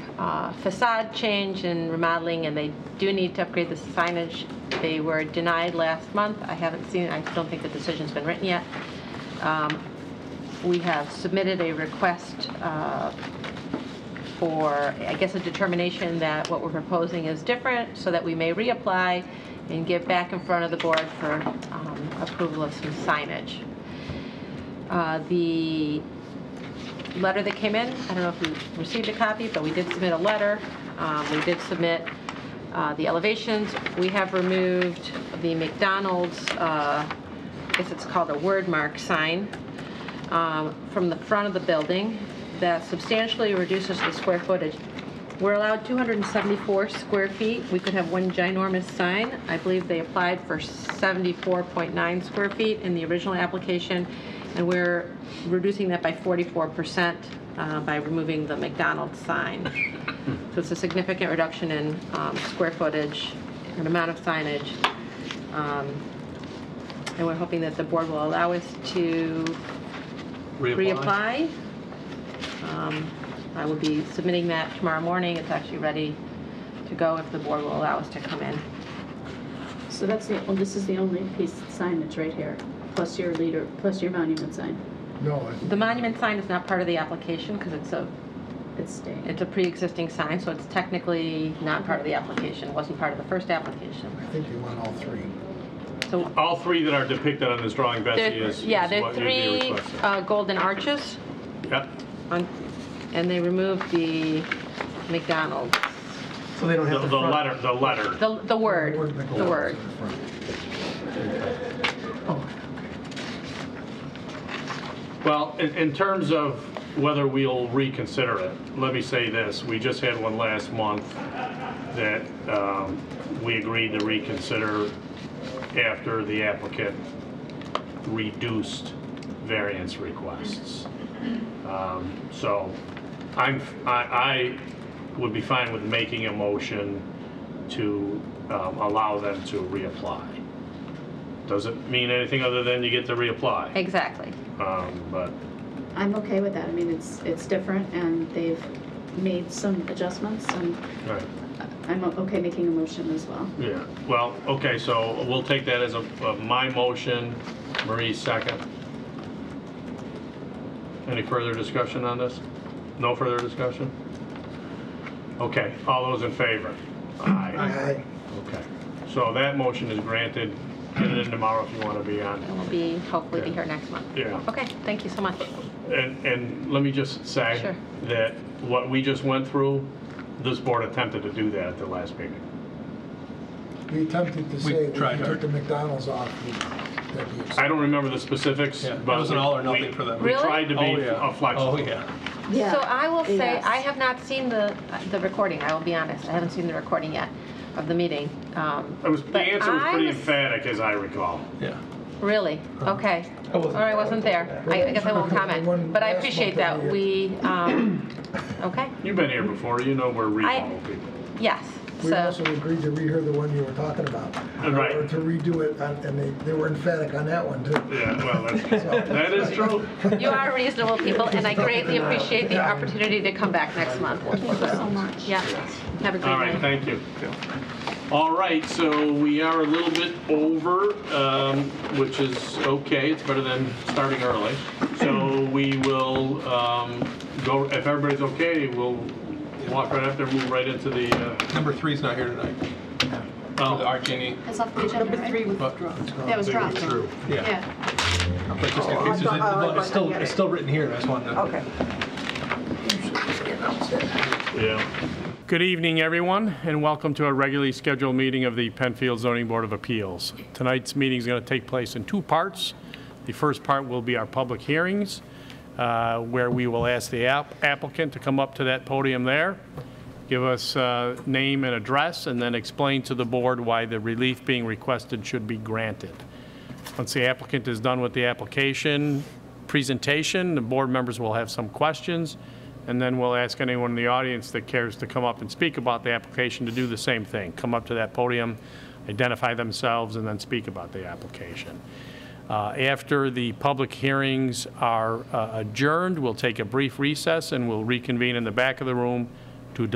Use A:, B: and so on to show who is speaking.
A: uh, facade change and remodeling, and they do need to upgrade the signage. They were denied last month. I haven't seen, I don't think the decision's been written yet. Um, We have submitted a request uh, for, I guess, a determination that what we're proposing is different, so that we may reapply and get back in front of the board for um, approval of some signage. Uh, The letter that came in, I don't know if you received a copy, but we did submit a letter. Um, We did submit uh, the elevations. We have removed the McDonald's, uh, I guess it's called a word mark sign, um, from the front of the building. That substantially reduces the square footage. We're allowed 274 square feet. We could have one ginormous sign. I believe they applied for 74.9 square feet in the original application, and we're reducing that by 44% uh, by removing the McDonald's sign. So it's a significant reduction in um, square footage and amount of signage. Um, And we're hoping that the board will allow us to reapply. Um, I will be submitting that tomorrow morning. It's actually ready to go if the board will allow us to come in.
B: So that's the, well, this is the only piece of signage right here, plus your leader, plus your monument sign.
C: No, I-
A: The monument sign is not part of the application because it's a,
B: It's staying.
A: it's a pre-existing sign, so it's technically not part of the application. It Wasn't part of the first application.
C: I think you want all three.
A: So,
D: All three that are depicted on this drawing, Betsy,
A: there-
D: is is
A: yeah, there are
D: what you'd be
A: three uh,
D: requesting.
A: golden arches
D: Yep.
A: on, and they removed the McDonald's,
E: So they don't
D: The
E: have
D: the letter, the letter.
A: the, the word, the
C: McDonald's
A: word.
C: in front.
D: Well, in, in terms of whether we'll reconsider it, let me say this, we just had one last month that um, we agreed to reconsider after the applicant reduced variance requests. Um, So I'm, I, I would be fine with making a motion to um, allow them to reapply. Doesn't mean anything other than you get to reapply.
A: Exactly.
D: Um, but
B: I'm okay with that. I mean, it's, it's different and they've made some adjustments and
D: right.
B: I'm o- okay making a motion as well.
D: yeah. Well, okay. So we'll take that as a, a my motion. Marie second. Any further discussion on this? No further discussion. Okay. All those in favor? Aye.
C: I-
D: Okay. So that motion is granted. Get it in tomorrow if you want to be on.
A: And we'll be, hopefully be here next month.
D: Yeah.
A: Okay, thank you so much.
D: And, and let me just say
A: Sure.
D: that what we just went through, this board attempted to do that at the last meeting.
C: We attempted to say, we
E: tried
C: took
E: hard.
C: the McDonald's off. we- that we accept.
D: I don't remember the specifics,
E: Yeah,
D: but.
E: it was an
D: we-
E: all or nothing
D: we-
E: for them.
D: We
A: Really?
D: tried to be uh, flexible.
E: Oh, yeah.
B: Yeah.
A: So I will say,
B: Yes.
A: I have not seen the, the recording, I will be honest, I haven't seen the recording yet of the meeting. Um,
D: It was, the
A: but
D: answer was
A: I
D: pretty emphatic, as I recall.
E: Yeah.
A: Really? Okay.
E: I wasn't-
A: All right, I wasn't there, I I guess I won't comment, but I appreciate that, we, um, okay,
D: You've been here before, you know we're reasonable people.
A: yes,
C: We also
A: so,
C: agreed to rehear the one you were talking about.
D: Right.
C: Or to redo it, and and they, they were emphatic on that one, too.
D: Yeah, well, that's, that is true.
A: you are reasonable people, and I greatly appreciate the opportunity to come back next month.
B: Thank you so much.
A: Yeah, have a great night.
D: All right, thank you. All right, so we are a little bit over, um, which is okay, it's better than starting early. So we will um, go, if everybody's okay, we'll walk right after, move right into the, uh,
E: Number three's not here tonight. The
D: oh,
E: Arcane.
B: That's off the agenda, right?
E: That
B: That was dropped.
E: Yeah. Oh,
B: Yeah.
E: But just in case, there's a- it's still, it's still written here, I just wanted to. Okay.
D: yeah. Good evening, everyone, and welcome to a regularly scheduled meeting of the Penfield Zoning Board of Appeals. Tonight's meeting is going to take place in two parts. The first part will be our public hearings, uh, where we will ask the app- applicant to come up to that podium there, give us uh, name and address, and then explain to the board why the relief being requested should be granted. Once the applicant is done with the application presentation, the board members will have some questions, and then we'll ask anyone in the audience that cares to come up and speak about the application to do the same thing. Come up to that podium, identify themselves, and then speak about the application. Uh, After the public hearings are uh, adjourned, we'll take a brief recess and we'll reconvene in the back of the room